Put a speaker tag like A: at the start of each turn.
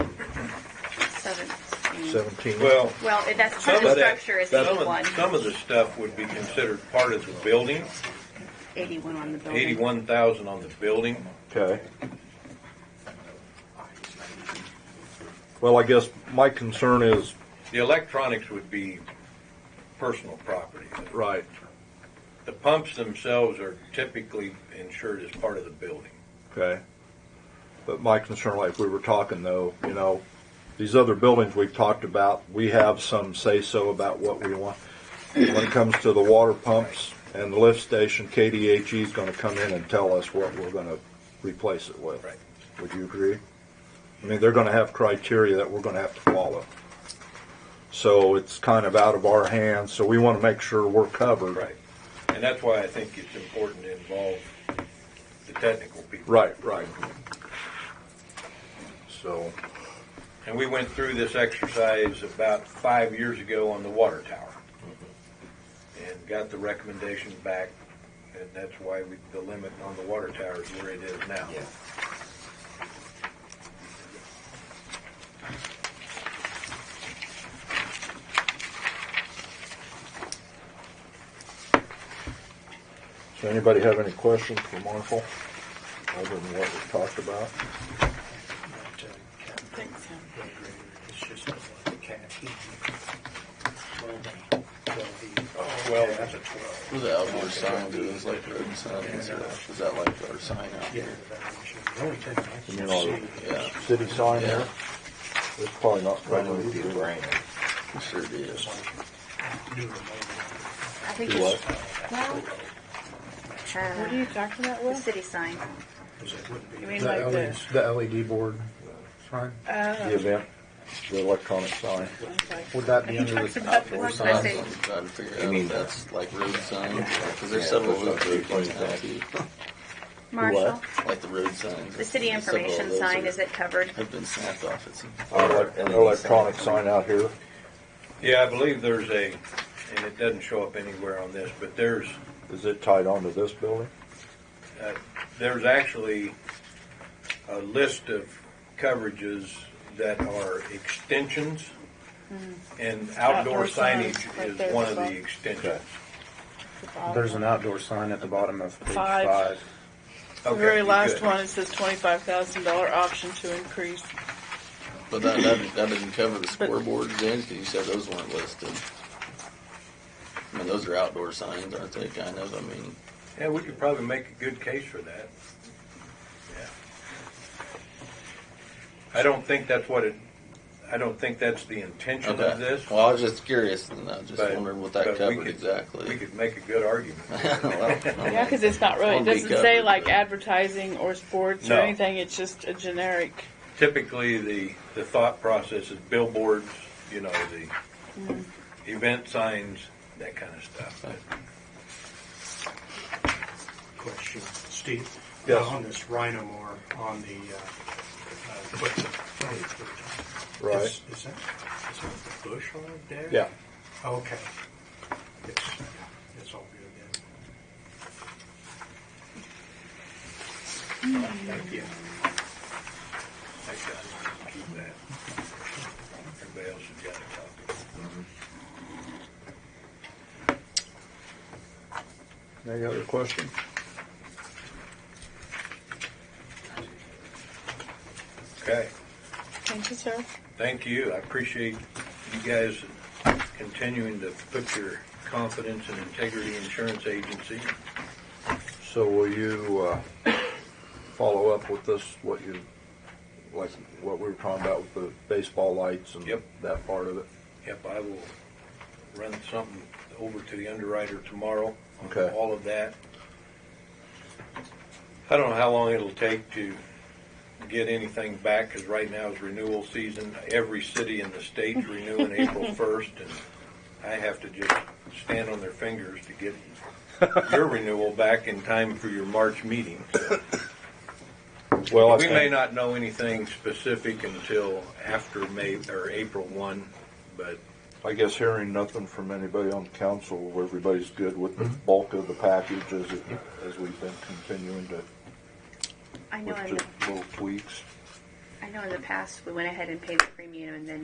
A: seventeen.
B: seventeen.
C: Well,
A: Well, it- that's part
C: some
A: of the
C: of that,
A: structure is
C: some
A: eighty-one.
C: of, some of the stuff would be considered part of the building,
A: Eighty-one on the building.
C: eighty-one thousand on the building.
B: Okay. Well, I guess my concern is,
C: The electronics would be personal property.
B: right,
C: The pumps themselves are typically insured as part of the building.
B: okay. But my concern, like we were talking though, you know, these other buildings we've talked about, we have some say-so about what we want. When it comes to the water pumps and the lift station, KDHE E is gonna come in and tell us what we're gonna replace it with.
C: Right.
B: Would you agree? I mean, they're gonna have criteria that we're gonna have to follow. So it's kind of out of our hands, so we wanna make sure we're covered.
C: Right. And that's why I think it's important to involve the technical people.
B: Right, right. So,
C: And we went through this exercise about five years ago on the water tower. And got the recommendation back, and that's why we, the limit on the water tower is where it is now.
B: so anybody have any questions for Marshall? Other than what we talked about?
D: uh,
A: Think so.
C: Well,
E: Those are outdoor signs, are those like road signs and stuff? Is that like our sign out here?
B: You mean all the
E: Yeah,
B: city sign there?
E: Yeah.
B: It's probably not.
E: it sure is.
A: I think
B: Do
A: it's,
B: what?
A: well,
F: What are
A: uh,
F: you talking about,
A: the
F: Will?
A: city sign.
F: You mean like the,
G: The LED board sign,
B: The event, the electronic sign.
G: would that
F: he
G: be under
F: talks
G: the
F: about the
G: outdoor
A: word
G: sign?
A: message.
E: I'm trying to figure out if that's like road signs, because there's several of those road signs,
A: Marshall,
E: like the road signs.
A: the city
E: Several of
A: information
E: those
A: sign,
E: are-
A: is it covered?
E: Have been snapped off, it's.
B: Elec- Uh, Electronic sign out here.
C: yeah, I believe there's a, and it doesn't show up anywhere on this, but there's,
B: Is it tied onto this building?
C: uh, there's actually a list of coverages that are extensions, and outdoor
F: Mm-hmm. Outdoor signs,
C: signage
F: right there
C: is one
F: as
C: of the
F: well.
C: extensions.
G: There's an outdoor sign at the bottom of page
F: Five.
G: five.
F: The
C: Okay,
F: very
C: good.
F: last one, it says twenty-five thousand dollar option to increase.
E: But that, that, that doesn't cover the scoreboards then, because you said those weren't listed. I mean, those are outdoor signs, aren't they, kind of? I mean,
C: Yeah, we could probably make a good case for that. Yeah. I don't think that's what it, I don't think that's the intention of
E: okay.
C: this.
E: Well, I was just curious, and I just
C: but-
E: wondered what
C: but
E: that
C: we
E: covered
C: could- We
E: exactly.
C: could make a good argument.
E: Well, I
F: Yeah, because it's not really, it
E: Won't be
F: doesn't say
E: covered,
F: like
E: but-
F: advertising or sports or
C: No.
F: anything, it's just a generic.
C: Typically, the, the thought process is billboards, you know, the event signs, that kind of stuff.
D: Question, Steve?
B: Yes.
D: On this Rhinomore, on the, uh, uh, what the frontage we're talking-
B: Right.
D: Is is that, is that the bush hog there?
B: Yeah.
D: Okay. It's, it's all good then. Thank you.
C: I got- keep that. Everybody else has got a copy.
E: Mm-hmm.
B: Any other questions?
C: Okay.
F: Thank you, sir.
C: Thank you. I appreciate you guys continuing to put your confidence in Integrity Insurance Agency.
B: So will you, uh, follow up with this, what you, like, what we were talking about with the baseball lights and
C: Yep.
B: that part of it?
C: Yep, I will run something over to the underwriter tomorrow on
B: Okay.
C: all of that. I don't know how long it'll take to get anything back, because right now is renewal season. Every city in the state's renewing April first, and I have to just stand on their fingers to get your renewal back in time for your March meeting.
B: Well, I
C: We may
B: think,
C: not know anything specific until after May, or April one, but
B: I guess hearing nothing from anybody on council, everybody's good with the bulk of the package as, it- as we've been continuing to,
A: I know
B: with
A: in the,
B: just little tweaks.
A: I know in the past, we went ahead and paid the premium and then